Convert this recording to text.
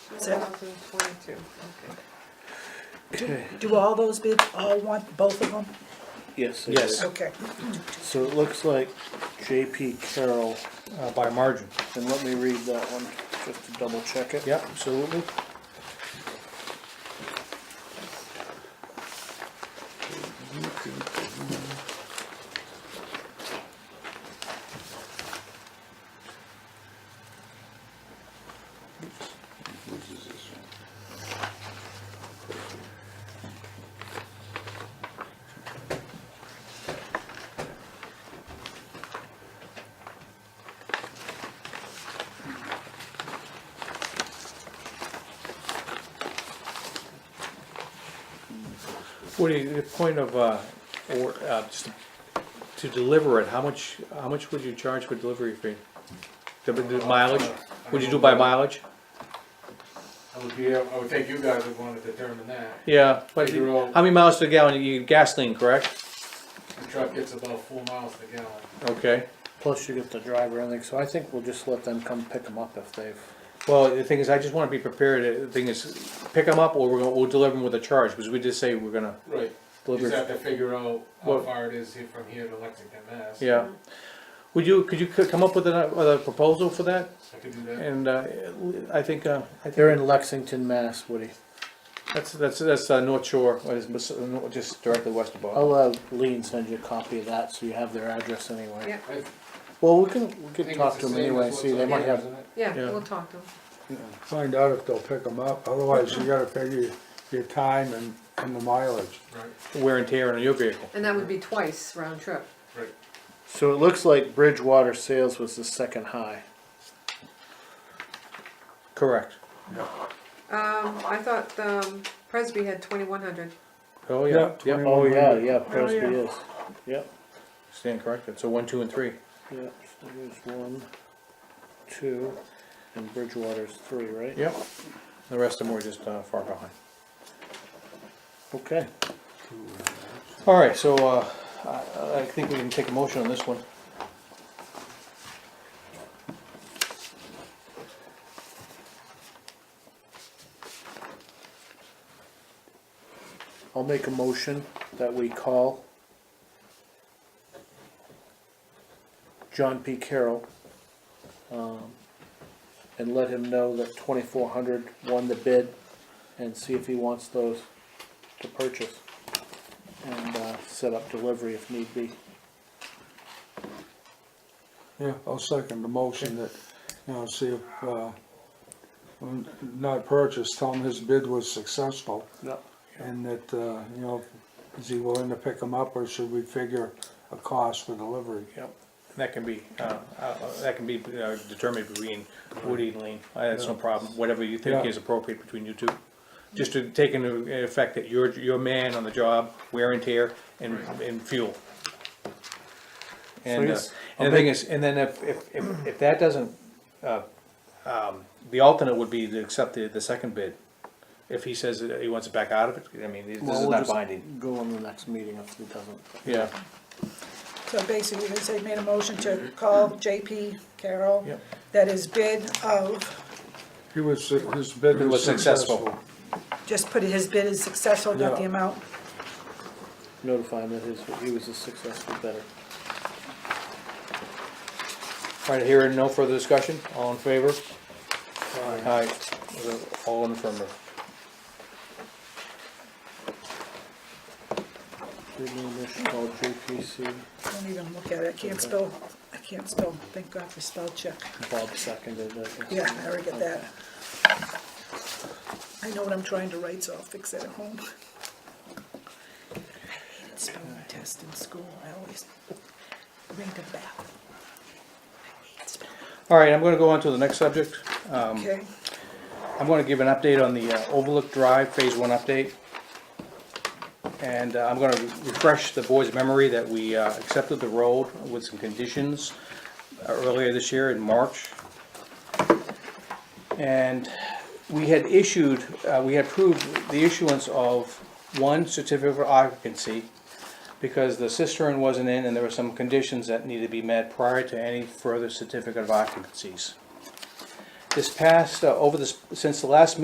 2022, okay. Do all those bids, all want both of them? Yes. Yes. Okay. So it looks like JP Carroll, uh, by a margin. and let me read that one, just to double check it. Yep, absolutely. Woody, the point of, uh, or, uh, just to deliver it, how much, how much would you charge for delivery fee? The the mileage, would you do by mileage? I would be, I would think you guys would wanna determine that. Yeah, but Figure out- how many miles to the gallon, you gasoline, correct? The truck gets about four miles to the gallon. Okay, Plus you get the driver and everything, so I think we'll just let them come pick them up if they've, well, the thing is, I just wanna be prepared, the thing is, pick them up or we're gonna, we'll deliver them with a charge, because we just say we're gonna Right. You deliver. just have to figure out how What- far it is here from here to Lexington, Mass. Yeah. Would you, could you c- come up with a, with a proposal for that? I could do that. And, uh, I think, uh, I think they're in Lexington, Mass, Woody. that's, that's, that's, uh, North Shore, what is, mis- uh, no- just directly west Oh, of Boston. I'll, uh, Lean send you a copy of that, so you have their address anyway. Yeah. I Well, we can, we think can it's talk the to them same anyway, as see, what's they on might here, have, isn't it? Yeah, Yeah. we'll talk to them. Find out if they'll pick them up, otherwise you gotta figure your time and, and the mileage. Right, Wear and tear on your vehicle. And that would be twice round trip. right. so it looks like Bridgewater Sales was the second high. Correct. Um, I thought, um, Presby had 2100. Oh, yeah, Yep, yep, 21. Oh, yeah, 2100. yeah, Presby yeah. is, yep. stand corrected, so one, two, and three. Yep, so there's one, two, and Bridgewater's three, right? Yep. The rest of them were just, uh, far behind. Okay, All right, so, uh, I, I think we can take a motion on this one. I'll make a motion that we call John P. Carroll, um, and let him know that twenty-four hundred won the bid, and see if he wants those to purchase. And, uh, set up delivery if need be. Yeah, I'll second the motion that, you know, see if, uh, when not purchased, tell him his bid was successful. Yep. And that, uh, you know, is he willing to pick them up or should we figure a cost for delivery? Yep. That can be, uh, uh, that can be uh, determined between Woody and Lean, Uh, that's no problem, whatever you think Yeah. is appropriate between you two. Just to take into effect that you're, you're a man on the job, wear and tear, and, and fuel. And, uh, yes, and the thing is, and then if, if, if, if that doesn't, uh, um, the alternate would be to accept the, the second bid. If he says that he wants it back out of it, I mean, this Well, is we'll not just binding, Go on the next meeting if he doesn't. yeah. So basically, they say made a motion to call JP Carroll. Yep. That is bid of, He was, his bid It was was successful. successful. just put his bid is successful, not the Yeah. amount. Notify him that his, he was a successful bidder. All right, hearing no further discussion, all in favor? Aye. All in affirmative. Bid name is called JPC, Don't even look at it, I can't spell, I can't spell, thank God for spell check. Bob seconded it. Yeah, I already get that. I know what I'm trying to write, so I'll fix that at home. I hated spelling tests in school, I always read the back. I hate spelling. All right, I'm gonna go on to the next subject. Okay, I'm gonna give an update on the uh, Overlook Drive Phase One update. And uh, I'm gonna refresh the board's memory that we uh, accepted the road with some conditions uh, earlier this year in March. And we had issued, uh, we had approved the issuance of one certificate of occupancy because the cistern wasn't in and there were some conditions that needed to be met prior to any further certificate of occupancies. This past, uh, over this, since the last meeting.